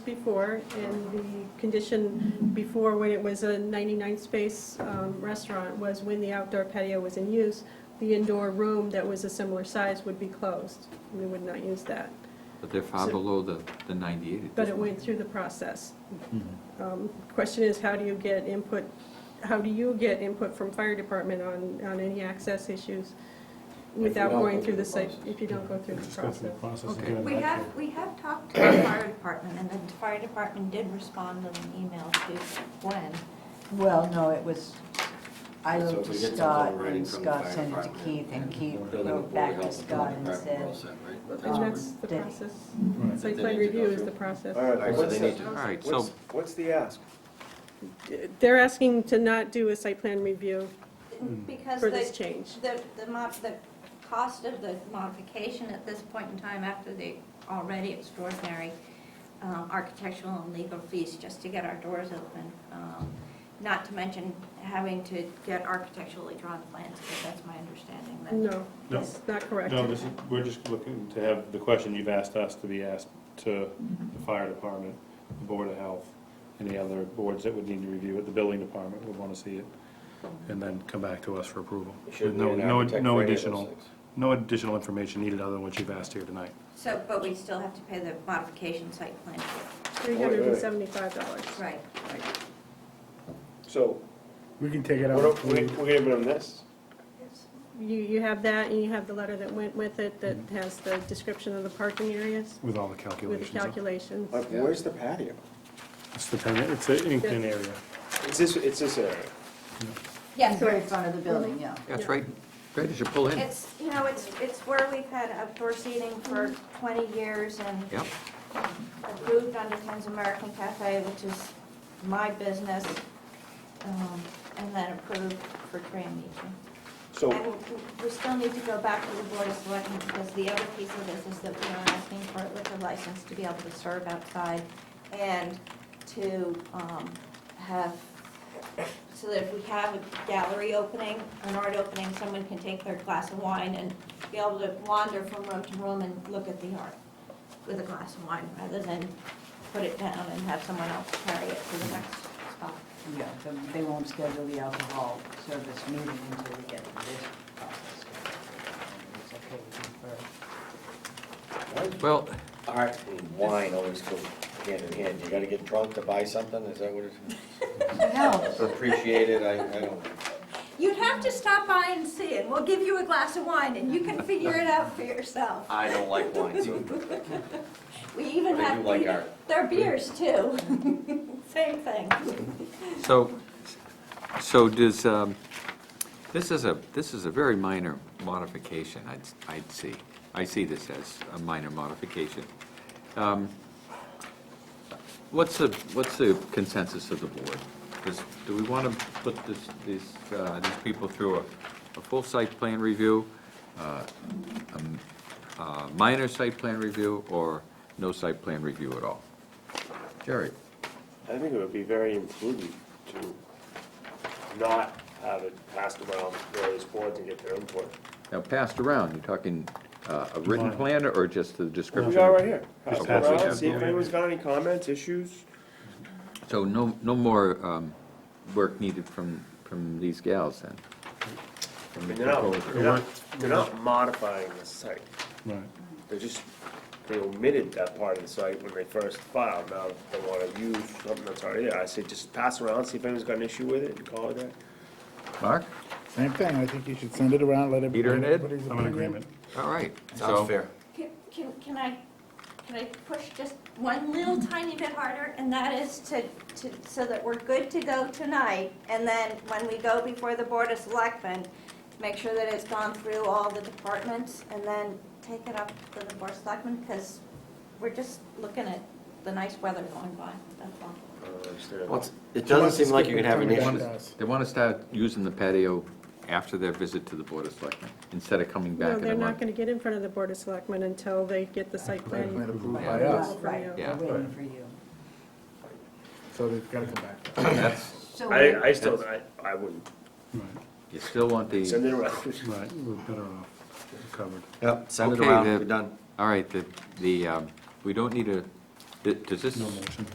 before, and the condition before, when it was a 99 space um, restaurant, was when the outdoor patio was in use, the indoor room that was a similar size would be closed, and we would not use that. But they're far So- below the, the 98. at But this it point. went through the process. Mhm. Um, Question is, how do you get input, how do you get input from fire department on, on any access issues you without don't going go through through the the site, process. if you don't go through the process? Okay. We have, we have talked to the fire department, and the fire department did respond in an email to Gwen. Well, no, it was, I So wrote if we to get something Scott, writing and from the Scott fire sent it to department, Keith, and Keith Building wrote back to Scott and said, And that's the Did- process. Right. Site They plan need to review go is through. the process. All right, so What's they the- need to. All right, so, What's the ask? They're asking to not do a site plan review Because for this the, change. the, the mod, the cost of the modification at this point in time, after the already extraordinary um, architectural and legal fees just to get our doors open, um, not to mention having to get architecturally drawn plans, because that's my understanding, that No, No. that's not correct. No, this is, we're just looking to have the question you've asked us to be asked to Mm-hmm. the fire department, the board of health, and the other boards that would need to review it, the building department would wanna see it, and then come back to us for approval. Should No, we an no- architect no for any of those additional- things? No additional information needed other than what you've asked here tonight. So, but we still have to pay the modification site plan. fee. $375. Right. So. We can take it We're, out. we're gonna put on this? You, you have that, and you have the letter that went with it that has the description of the parking areas With all the with the calculations. huh? calculations. Like, where's the patio? It's the pen, it's an Inkton area. It's this, it's this area. Yes, it's right in front of the building, yeah. yeah, it's right, right as you pull in. It's, you know, it's, it's where we've had outdoor seating for 20 years and Yep, approved under Ken's American Cafe, which is my business, um, and then approved for Tran Meeting. So, And we- we still need to go back to the Board of Selectmen because the other piece of this is that we are asking for a liquor license to be able to serve outside and to um, have, so that if we have a gallery opening, an art opening, someone can take their glass of wine and be able to wander from room to room and look at the art with a glass of wine rather than put it down and have someone else carry it to the next spot. Yeah, so they won't schedule the alcohol service meeting until we get to this process. It's okay with me well, Art and wine always go hand in hand. You gotta get drunk to buy something, is that what first. No, it's? Appreciate it, I, I don't. You'd have to stop by and see it. We'll give you a glass of wine and you can figure it out for yourself. I don't like wine, so. We even But I do have, like art. they're beers too. Same thing. so, so does, um, this is a, this is a very minor modification, I'd, I'd see. I see this as a minor modification. Um, What's the, what's the consensus of the board? Does, do we want to put this, these, uh, these people through a, a full site plan review, uh, um, uh, minor site plan review, or no site plan review at all? Jerry? I think it would be very imprudent to not have it passed around various boards and get their input. Now, passed around, you're talking uh, a written Mine. plan or just the We description? got right here. Just Pass it pass it around, down. See if anyone's got any comments, issues. So no, no more um, work needed from, from these gals then? I From the mean, they're not, proposers. they're not, they're not modifying the site. Right. They're just, they omitted that part of the site when they first filed. Now they want to use something that's already there. I say just pass around, see if anyone's got an issue with it and call it that. Mark? Same thing, I think you should send it around, let everybody. Peter and Ed? everybody's I'm in opinion. agreement. All right. so- Sounds fair. Can, can can I, can I push just one little tiny bit harder? And that is to, to, so that we're good to go tonight. And then when we go before the Board of Selectmen, make sure that it's gone through all the departments and then take it up to the Board of Selectmen because we're just looking at the nice weather going by, that's all. I don't understand. Well, it's- It She doesn't wants to seem like skip you can have an it coming issue. down to us. They want to start using the patio after their visit to the Board of Selectmen, instead of coming back No, in a they're not month. going to get in front of the Board of Selectmen until they get the site Site plan plan. approved Yeah. by us, Right. Right, Yeah. we're waiting for you. so they've gotta come back. That's, So I, I still, I, I wouldn't Right, you still want send the, it around. right, we're better off covered. Yep, send it Okay, around, the- we're done. all right, the, the, um, we don't need a Th- Does this? No motion.